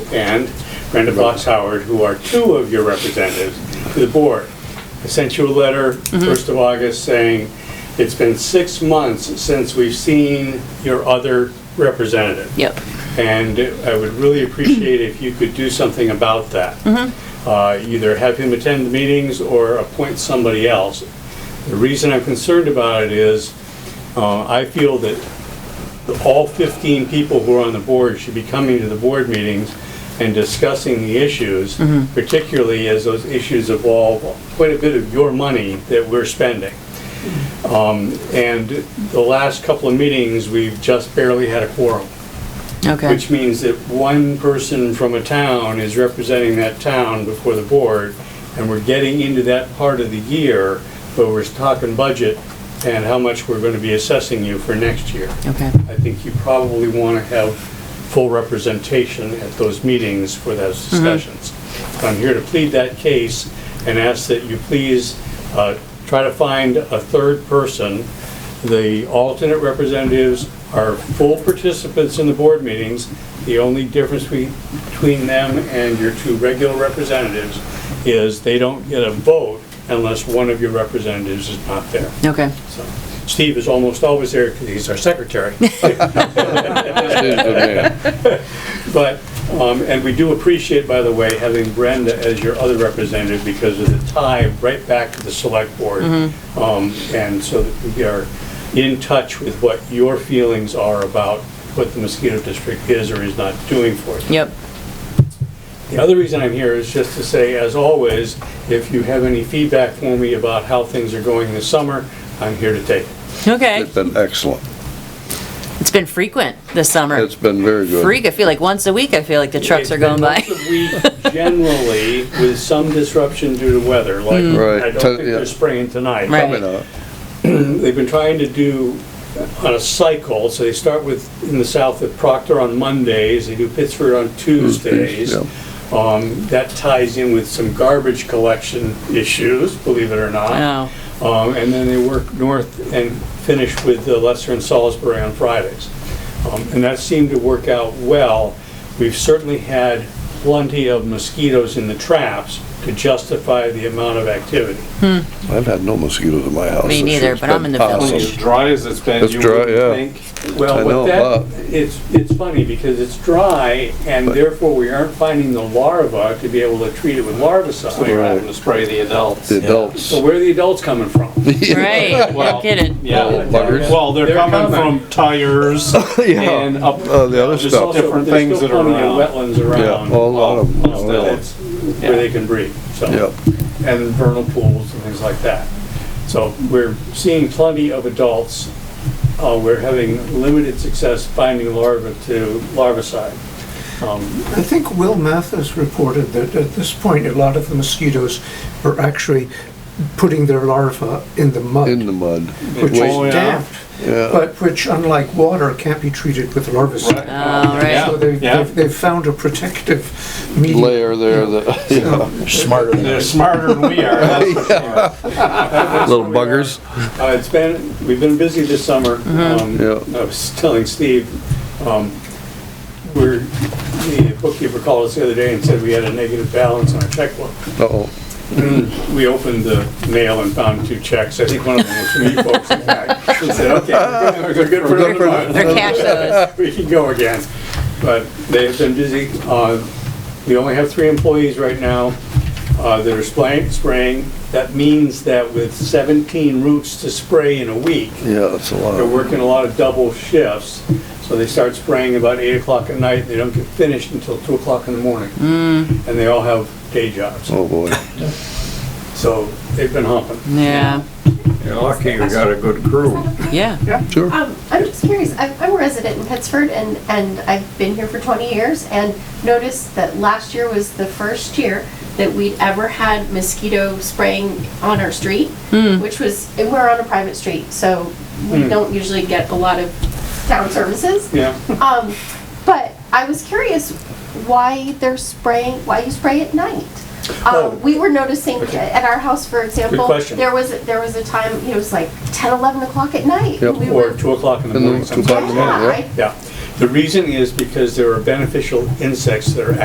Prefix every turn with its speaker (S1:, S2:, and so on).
S1: and Brenda Fox Howard, who are two of your representatives to the board. I sent you a letter, 1st of August, saying, it's been six months since we've seen your other representative.
S2: Yep.
S1: And I would really appreciate if you could do something about that. Uh, Either have him attend the meetings or appoint somebody else. The reason I'm concerned about it is, uh, I feel that the- all 15 people who are on the board should be coming to the board meetings and discussing the issues, particularly as those issues involve quite a bit of your money that we're spending. Um, And the last couple of meetings, we've just barely had a quorum.
S2: Okay.
S1: Which means that one person from a town is representing that town before the board, and we're getting into that part of the year where we're talking budget and how much we're gonna be assessing you for next year.
S2: Okay.
S1: I think you probably wanna have full representation at those meetings for those discussions. I'm here to plead that case and ask that you please, uh, try to find a third person the alternate representatives are full participants in the board meetings. The only difference we- between them and your two regular representatives is they don't get a vote unless one of your representatives is not there.
S2: Okay.
S1: So, Steve is almost always there because he's our secretary.
S3: oh,
S1: But, um, and we do appreciate, by the way, having Brenda as your other representative because of the tie right back to the select board. Um, And so that we are in touch with what your feelings are about what the mosquito district is or is not doing for you.
S2: Yep.
S1: The other reason I'm here is just to say, as always, if you have any feedback for me about how things are going this summer, I'm here to take it.
S2: Okay.
S3: It's been excellent.
S2: It's been frequent this summer.
S3: It's been very good.
S2: Freak. I feel like once a week. I feel like the trucks are
S1: It's been
S2: going by.
S1: once a week Generally, with some disruption due to weather, like,
S3: Right.
S1: I don't think
S3: Yeah.
S1: they're spraying tonight.
S2: Mm. Right.
S3: You know,
S1: They've been trying to do on a cycle, so they start with, in the south, with Proctor on Mondays, they do Pittsford on Tuesdays.
S3: Mm, yeah.
S1: Um, That ties in with some garbage collection issues, believe it or not.
S2: Oh.
S1: Um, And then they work north and finish with the Lesser and Salisbury on Fridays. Um, And that seemed to work out well. We've certainly had plenty of mosquitoes in the traps to justify the amount of activity.
S3: I've had no mosquitoes in my house.
S2: Me
S3: this
S2: neither,
S3: year. It's
S2: but I'm
S3: been
S2: in the village.
S3: awesome.
S4: As dry as it's been,
S3: It's
S4: you
S3: dry, yeah.
S4: would think.
S3: I
S1: Well,
S3: know,
S1: with
S3: but-
S1: that, it's, it's funny because it's dry and therefore we aren't finding the larva to be able to treat it with
S4: So you're
S1: larvicide.
S4: having to spray the adults.
S3: The adults.
S1: So where are the adults coming from?
S2: Right.
S4: Well,
S2: No kidding.
S4: Yeah.
S3: Little buggers.
S4: Well, they're
S1: They're
S4: coming
S1: coming.
S4: from tires
S3: Oh.
S4: and up.
S3: Uh, the other
S4: just
S3: stuff.
S4: all Different
S1: There's
S4: things
S1: still
S4: that are
S1: plenty of
S4: around.
S1: Wetlands around.
S3: Yeah, a lot of them.
S4: Oh,
S3: All of them.
S1: that's where they can breed, so.
S3: Yep.
S1: And vernal pools and things like that. So we're seeing plenty of adults. Uh, we're having limited success finding larvae to larvicide. Um,
S5: I think Will Mathis reported that at this point, a lot of the mosquitoes are actually putting their larvae in the mud,
S3: In the mud.
S5: which
S4: Oh, yeah.
S5: is damp,
S3: Yeah.
S5: but which, unlike water, can't be treated with larvicide.
S2: All right.
S5: So they-
S4: Yeah.
S5: they've, they've found a protective medium.
S3: Layer there, the
S4: Smarter than. They're smarter than we are. that's for sure.
S3: little buggers.
S1: Uh, It's been, we've been busy this summer. Um,
S3: Yeah.
S1: I was telling Steve, um, we're, the bookkeeper called us the other day and said we had a negative balance on our checkbook.
S3: Uh-oh.
S1: We opened the mail and found two checks. I think one of them was from you folks. in fact. We said, okay, we're good for another month."
S2: Or cash those.
S1: We can go again. But they have been busy. Uh, We only have three employees right now uh, that are spraying, spraying. That means that with 17 roots to spray in a week,
S3: Yeah, that's a
S1: they're
S3: lot.
S1: working a lot of double shifts, so they start spraying about eight o'clock at night, they don't get finished until two o'clock in the morning. And they all have day jobs,
S3: Oh, boy.
S1: so they've been humping.
S2: Yeah.
S6: You're lucky you got a good crew.
S2: Yeah.
S3: Sure.
S6: Um, I'm just curious, I'm, I'm a resident in Pittsford and, and I've been here for 20 years and noticed that last year was the first year that we'd ever had mosquito spraying on our street, which was, and we're on a private street, so we don't usually get a lot of town services.
S1: Hmm. Yeah,
S6: Um, but I was curious why they're spraying, why you spray at night.
S1: Oh.
S6: Um, we were noticing
S1: Okay.
S6: at our house, for example,
S1: question.
S6: there was, there was a time, it was like 10, 11 o'clock at night.
S3: Yep.
S6: We
S1: or
S6: were-
S1: two o'clock in the
S3: And then
S1: morning
S3: two
S1: sometimes.
S3: o'clock.
S6: yeah,
S3: Yeah.
S6: I
S1: Yeah, the reason is because there are beneficial insects that are